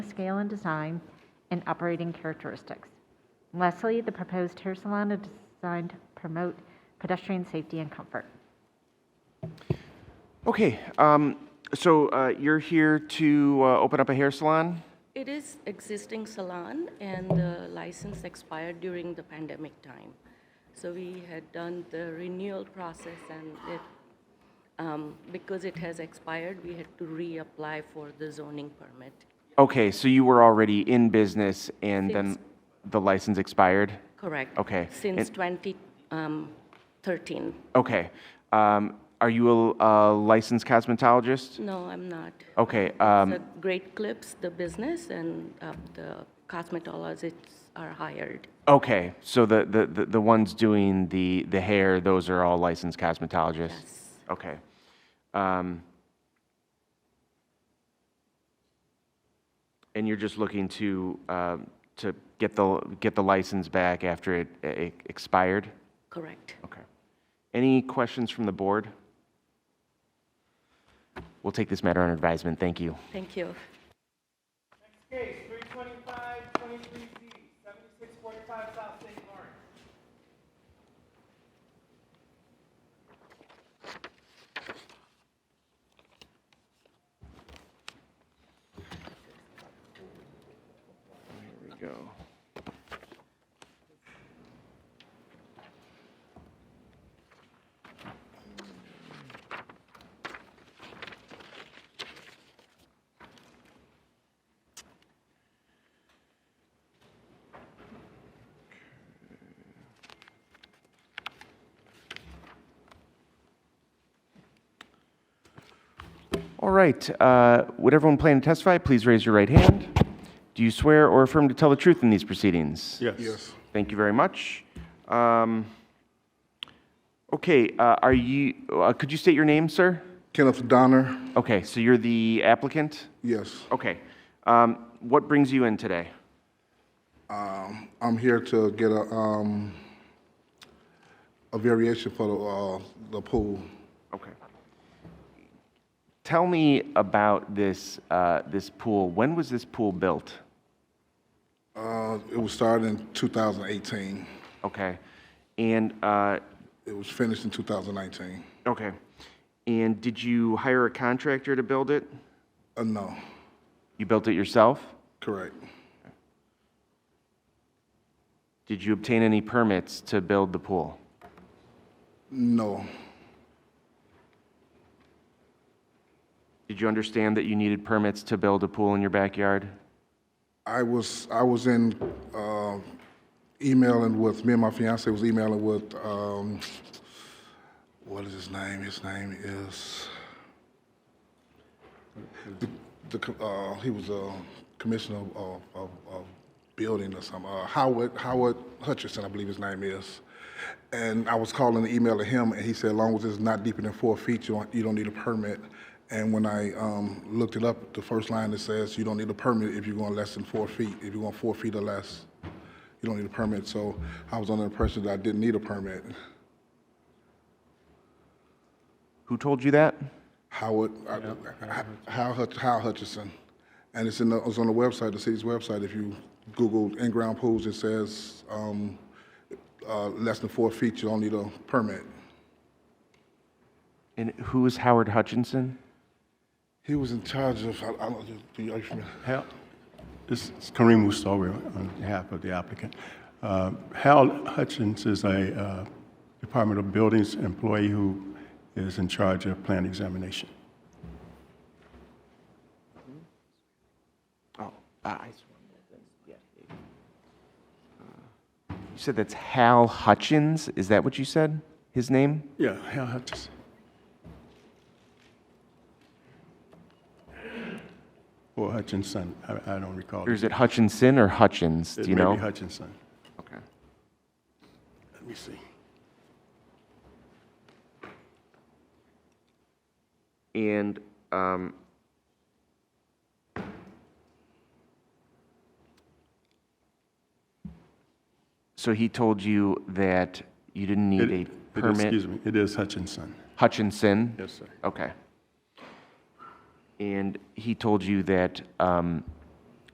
scale and design, and operating characteristics. Lastly, the proposed hair salon is designed to promote pedestrian safety and comfort. Okay, um, so uh, you're here to uh, open up a hair salon? It is existing salon and the license expired during the pandemic time. So we had done the renewal process and it, um, because it has expired, we had to reapply for the zoning permit. Okay, so you were already in business and then Yes. the license expired? Correct. Okay. Since um, And- 2013. Okay. Um, Are you a a licensed cosmetologist? No, I'm not. Okay, um, The Great Clips, the business, and uh, the cosmetologists are hired. okay, so the, the- the, the ones doing the, the hair, those are all licensed cosmetologists? Yes. Okay. Um, And you're just looking to, um, to get the, get the license back after it it expired? Correct. Okay. Any questions from the board? We'll take this matter under advisement. Thank you. Thank you. Case three twenty-five, twenty-three Z, seventy-six forty-five South St. Lawrence. Here we go. All right, uh, would everyone plan to testify, please raise your right hand. Do you swear or affirm to tell the truth in these proceedings? Yes. Yes. Thank you very much. Um, Okay, uh, are you, uh, could you state your name, sir? Kenneth Donner, Okay, so you're the applicant? yes. Okay. Um, What brings you in today? I'm here to get a, um, a variation for the, uh, the pool. Okay. Tell me about this, uh, this pool. When was this pool built? Uh, it was started in 2018. Okay. And, uh, It was finished in 2019. okay. And did you hire a contractor to build it? Uh, no, You built it yourself? correct. Did you obtain any permits to build the pool? No, Did you understand that you needed permits to build a pool in your backyard? I was, I was in, uh, emailing with, me and my fiance was emailing with, um, what is his name? His name is, the, the, co- uh, he was a commissioner of, of, of, of building or something, uh, Howard, Howard Hutchinson, I believe his name is. And I was calling the email to him, and he said, as long as it's not deeper than four feet, you don't, you don't need a permit. And when I, um, looked it up, the first line that says, you don't need a permit if you're going less than four feet, if you're going four feet or less, you don't need a permit. So I was under the impression that I didn't need a permit. Who told you that? Howard, I- I- Hal Hutch- Hal Hutchinson. And it's in the, it's on the website, the city's website. If you Google in-ground pools, it says, um, uh, less than four feet, you don't need a permit. And who is Howard Hutchinson? He was in charge of, I, I don't, do you, are you familiar? Hal, this is Kareem Mustawi on behalf of the applicant. Uh, Hal Hutchins is a uh, Department of Buildings employee who is in charge of plan examination. Oh, I. You said that's Hal Hutchins? Is that what you said? His name? Yeah, Hal Hutchins. Or Hutchinson, I I don't recall. Or is it Hutchinson or Hutchins? Do It you may know? be Hutchinson. Okay. Let me see. And, um, so he told you that you didn't It- need it- a permit? Excuse me, it is Hutchinson. Hutchinson? Yes, sir. Okay. And he told you that um,